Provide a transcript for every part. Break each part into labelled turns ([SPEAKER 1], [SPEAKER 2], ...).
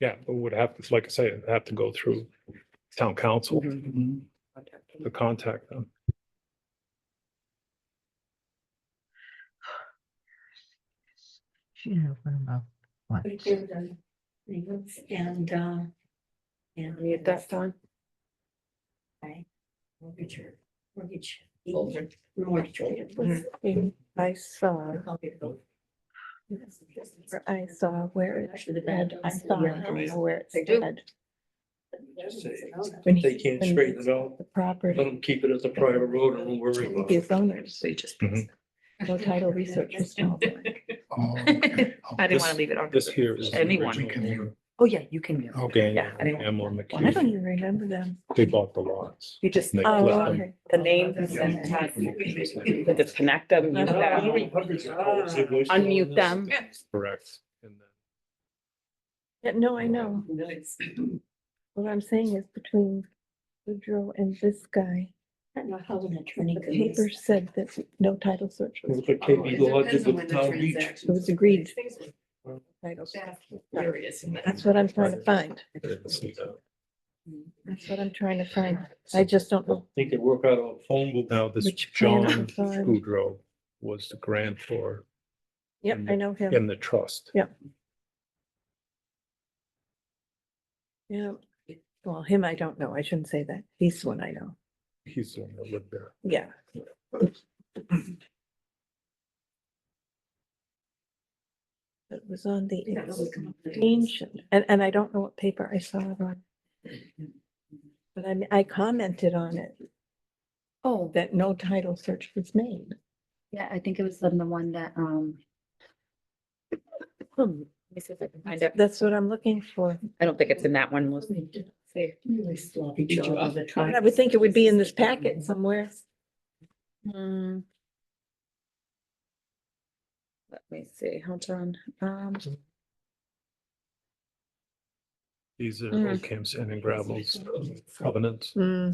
[SPEAKER 1] Yeah, but would have, to like I say, it'd have to go through town council
[SPEAKER 2] Mm-hmm.
[SPEAKER 1] to contact them.
[SPEAKER 3] She didn't open her mouth
[SPEAKER 4] We
[SPEAKER 3] once.
[SPEAKER 4] did the grievance and, uh. And.
[SPEAKER 2] Me at that time.
[SPEAKER 4] I- Mortgage, or- mortgage, holder, mortgage. holder was-
[SPEAKER 2] I saw,
[SPEAKER 4] I copy of those.
[SPEAKER 2] I saw where it
[SPEAKER 4] Actually, the
[SPEAKER 2] said,
[SPEAKER 4] bad.
[SPEAKER 2] I saw, I don't know where it
[SPEAKER 4] They do.
[SPEAKER 2] said.
[SPEAKER 4] When
[SPEAKER 2] When
[SPEAKER 5] They
[SPEAKER 2] he,
[SPEAKER 5] can't
[SPEAKER 2] when
[SPEAKER 5] straighten it out.
[SPEAKER 2] the
[SPEAKER 5] Let
[SPEAKER 2] property,
[SPEAKER 5] them keep it as a private road and we'll worry about it.
[SPEAKER 2] his owners, they just.
[SPEAKER 1] Mhm.
[SPEAKER 2] No title research was done.
[SPEAKER 6] I didn't want
[SPEAKER 1] This-
[SPEAKER 6] to leave it on.
[SPEAKER 1] This here is. the
[SPEAKER 6] Anyone.
[SPEAKER 1] original
[SPEAKER 5] Anyone.
[SPEAKER 6] Oh, yeah, you can. mute.
[SPEAKER 1] Daniel
[SPEAKER 6] Yeah, I didn't-
[SPEAKER 1] Amlin
[SPEAKER 2] I don't
[SPEAKER 1] McKee,
[SPEAKER 2] even remember them.
[SPEAKER 1] they bought the lots.
[SPEAKER 6] You just,
[SPEAKER 1] They
[SPEAKER 2] Oh,
[SPEAKER 1] flipped them.
[SPEAKER 2] okay.
[SPEAKER 6] the names and then have- to disconnect them, mute them, unmute them.
[SPEAKER 1] Correct. And then
[SPEAKER 2] Yeah, No, I know. What I'm saying is between Boudreaux and this guy,
[SPEAKER 4] I don't know how an attorney
[SPEAKER 2] the
[SPEAKER 4] could. miss-
[SPEAKER 2] paper said that no title search was
[SPEAKER 5] Look at KB Law did with Town Beach.
[SPEAKER 2] It was agreed.
[SPEAKER 1] Mm-hmm.
[SPEAKER 2] title. search. That's what I'm trying to find.
[SPEAKER 1] they didn't see that.
[SPEAKER 2] That's what I'm trying to find. I just don't know.
[SPEAKER 5] They could work out a phone book.
[SPEAKER 1] Now, this
[SPEAKER 2] Which plan
[SPEAKER 1] John
[SPEAKER 2] was on?
[SPEAKER 1] Goodrow was the grantor
[SPEAKER 2] Yep, I know him.
[SPEAKER 1] in the trust.
[SPEAKER 2] Yeah. Well, him, I don't know. I shouldn't say that. He's the one I know.
[SPEAKER 1] He's the one that lived there.
[SPEAKER 2] Yeah. It was on the
[SPEAKER 4] Yeah, that would come up with-
[SPEAKER 2] ancient, and, and I don't know what paper I saw it on. But I, mean, I commented on it. Oh. That no title search was made.
[SPEAKER 7] Yeah, I think it was on the one that, um. Hmm, Let me see if I can find it.
[SPEAKER 2] That's what I'm looking for.
[SPEAKER 7] I don't think it's in that one, Melissa.
[SPEAKER 4] Really sloppy job of the time.
[SPEAKER 2] I would think it would be in this packet somewhere.
[SPEAKER 7] Hmm. Let me see, hold on, um,
[SPEAKER 1] These are
[SPEAKER 7] Mm.
[SPEAKER 1] old Camp Sand and Gravel's covenants.
[SPEAKER 2] Hmm.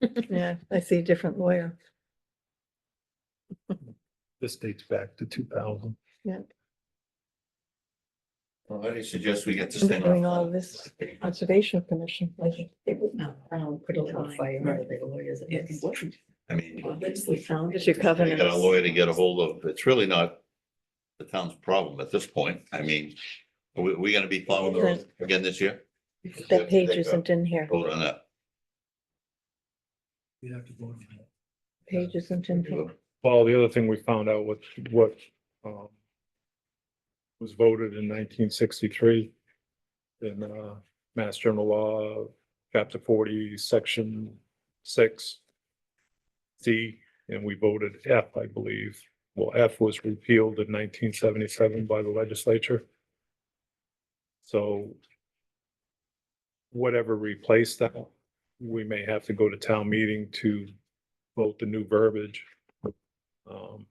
[SPEAKER 2] Yeah, I see a different lawyer.
[SPEAKER 1] This dates back to two thousand.
[SPEAKER 8] Well, I suggest we get this
[SPEAKER 2] I'm
[SPEAKER 8] thing.
[SPEAKER 2] doing all
[SPEAKER 8] off.
[SPEAKER 2] this conservation commission.
[SPEAKER 4] It would not, um, put a little fire under the lawyers.
[SPEAKER 8] I mean,
[SPEAKER 4] Obviously found.
[SPEAKER 2] It's your
[SPEAKER 8] we
[SPEAKER 2] covenant.
[SPEAKER 8] got a lawyer to get a hold of. It's really not the town's problem at this point. I mean, are we, we gonna be plowing the road again this year?
[SPEAKER 2] That page isn't in here.
[SPEAKER 8] Hold on up.
[SPEAKER 2] Page isn't in here.
[SPEAKER 1] Well, the other thing we found out was what, um, was voted in nineteen sixty-three in, uh, Mass General Law, Chapter forty, Section six, C, and we voted F, I believe. Well, F was repealed in nineteen seventy-seven by the legislature. So whatever replaced that, we may have to go to town meeting to vote the new verbiage. Um,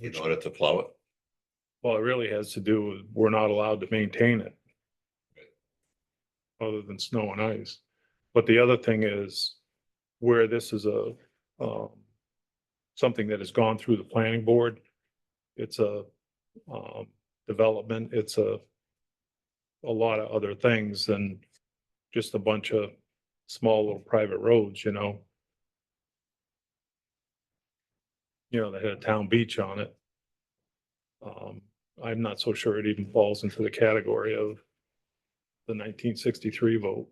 [SPEAKER 8] In order to plow it.
[SPEAKER 1] well, it really has to do with, we're not allowed to maintain it. Other than snow and ice. But the other thing is where this is a, um, something that has gone through the planning board. It's a, um, development, it's a, a lot of other things than just a bunch of small little private roads, you know? You know, that had a town beach on it. Um, I'm not so sure it even falls into the category of the nineteen sixty-three vote.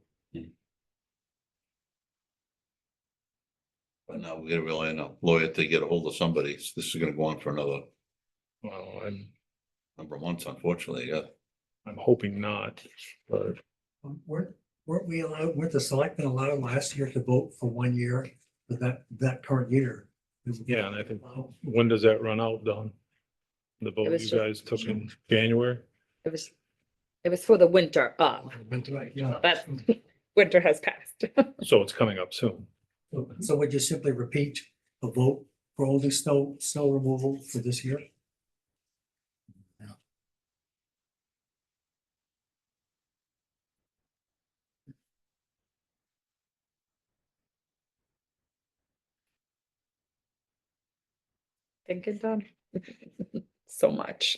[SPEAKER 8] But now we're gonna rely on a lawyer to get a hold of somebody. So This is gonna go on for another
[SPEAKER 1] Well, I'm,
[SPEAKER 8] number of months, unfortunately, yeah.
[SPEAKER 1] I'm hoping not, but
[SPEAKER 9] Um, Weren't, weren't we allowed, weren't the selectmen allowed last year to vote for one year for that, that current year?
[SPEAKER 1] yeah, and I think,
[SPEAKER 9] Wow.
[SPEAKER 1] when does that run out, Don? The vote
[SPEAKER 7] was
[SPEAKER 1] you
[SPEAKER 7] ju-
[SPEAKER 1] guys took in January?
[SPEAKER 7] it was, it was for the winter of,
[SPEAKER 9] Went to that, yeah.
[SPEAKER 7] That's- winter has passed.
[SPEAKER 1] So it's coming up soon.
[SPEAKER 9] So- So would you simply repeat a vote for only snow, snow removal for this year?
[SPEAKER 7] Thinking done. So much.